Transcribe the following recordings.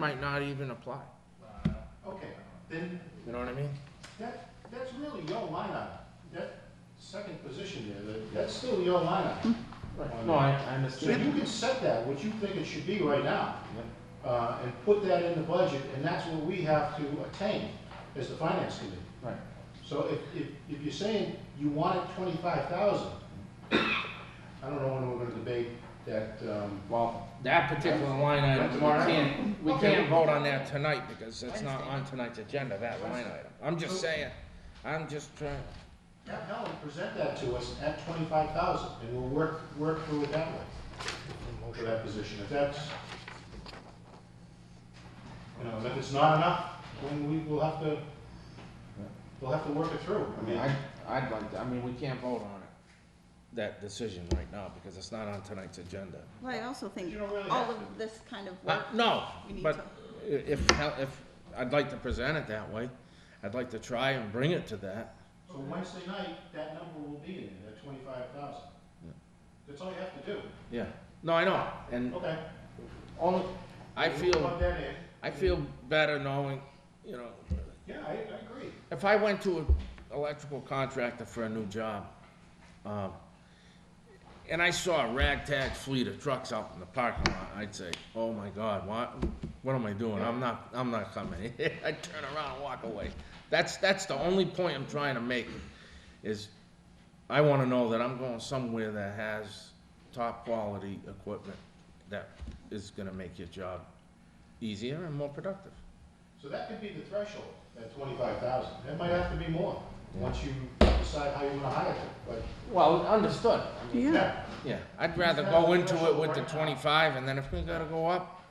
might not even apply, Okay, then you know what I mean? that, that's really your line item. That second position there, that, that's still your line item. on No, that. I, I So you understand. can set that, what you think it should be right now, uh, and put that in the budget, and that's what we have to attain as the finance committee. Right. So if, if, if you're saying you want it twenty-five thousand, I don't know when we're gonna debate that, um, Well, that particular line item, we can't, we Okay. can't vote on that tonight because it's not on tonight's agenda, that line item. I'm just saying, I'm just trying, have Helen present that to us at twenty-five thousand, and we'll work, work through it that way. For that position, if that's, you know, if it's not enough, then we will have to, we'll have to work it through. I mean, I, I'd like, to- I mean, we can't vote on it, that decision right now because it's not on tonight's agenda. Well, I also think You don't really have all of to. this kind of Uh, work, no, We need but to- i- if, if, I'd like to present it that way. I'd like to try and bring it to that. So Wednesday night, that number will be in there, that twenty-five thousand. That's all you have to do. Yeah, no, I know, and Okay. only, I We'll feel, plug that in. I feel better knowing, you know, Yeah, I, I agree. if I went to an electrical contractor for a new job, um, and I saw a ragtag fleet of trucks out in the parking lot, I'd say, oh my God, what, what am I doing? I'm not, I'm not coming. I'd turn around and walk away. That's, that's the only point I'm trying to make, is I wanna know that I'm going somewhere that has top quality equipment that is gonna make your job easier and more productive. So that could be the threshold, at twenty-five thousand. That might have to be more, once you decide how you wanna hire them, but. Well, understood. yeah, Yeah, I'd rather go into it with the twenty-five, and then if we gotta go up,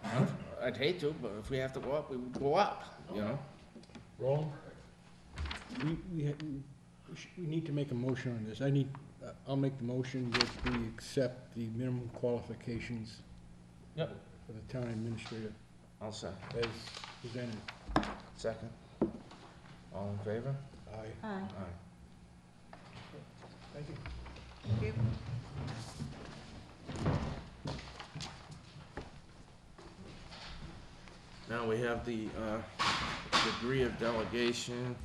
I'd hate to, but if we have to go up, we would go up, you know? Wrong? We, we, ha- we sh- we need to make a motion on this. I need, uh, I'll make the motion that we accept the minimum qualifications Yep. for the town administrator I'll second. as presented. Second. All in favor? Aye. uh, Aye. Thank you. you- Now we have the, uh, degree of delegation.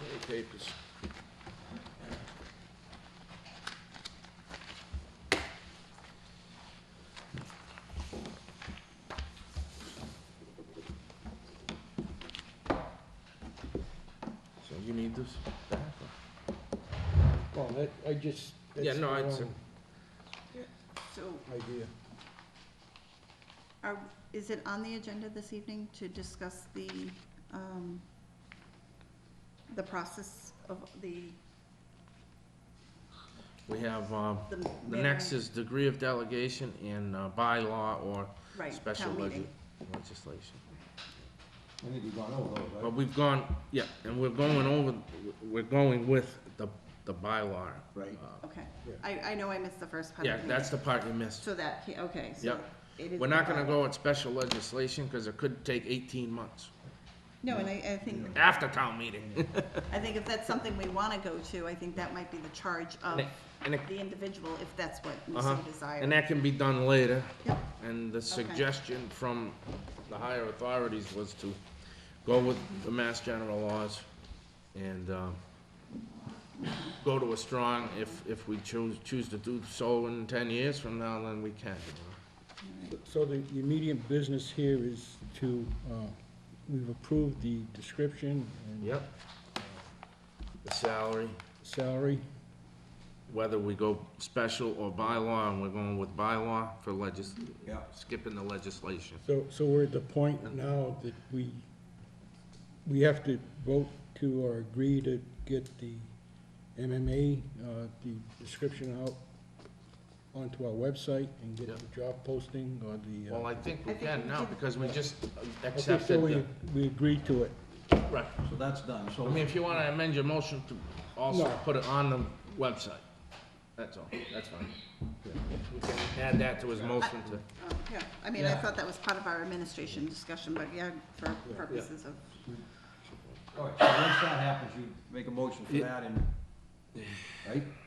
Many papers. So you need this back? or- Well, that, I just, Yeah, that's the no, it's a- wrong so idea. are, is it on the agenda this evening to discuss the, um, the process of the, We have, um, the the manner- next is degree of delegation in uh, bylaw or Right, special town legis- meeting. legislation. I think we've gone over those, right? But we've gone, yeah, and we're going over, we're going with the, the bylaw. Right. uh, Okay, Yeah. I, I know I missed the first part. of Yeah, the that's meeting. the part you missed. So that, ca- okay, so. Yep. it is We're the not gonna bylaw. go with special legislation, cause it could take eighteen months No, and I, I think, after town meeting. I think if that's something we wanna go to, I think that might be the charge of And it- and it- the individual, if that's what you so Uh-huh. desire. And that can be done later. Yep. And the suggestion from the higher authorities was to go with the mass general laws and, um, go to a strong, if, if we choose, choose to do so in ten years from now, then we can. you So the the immediate business here is to, uh, we've approved the description know? and Yep. The salary, salary. whether we go special or bylaw, and we're going with bylaw for legis, Yeah. skipping the legislation. So, so we're at the point now that we, we have to vote to or agree to get the MMA, uh, the description out onto our website and get the job posting or the. uh, Well, I think I we think can we now, did- because we just okay, so accepted we- the. We agreed to it. Right. So that's done, I so, mean, if you wanna amend your motion to also No. put it on the website, that's all, that's fine. We can add that to his motion to, Oh, Yeah, I mean, I Yeah. thought that was part of our administration discussion, but yeah, for purposes of, all right, so once that happens, you make a motion for that and right?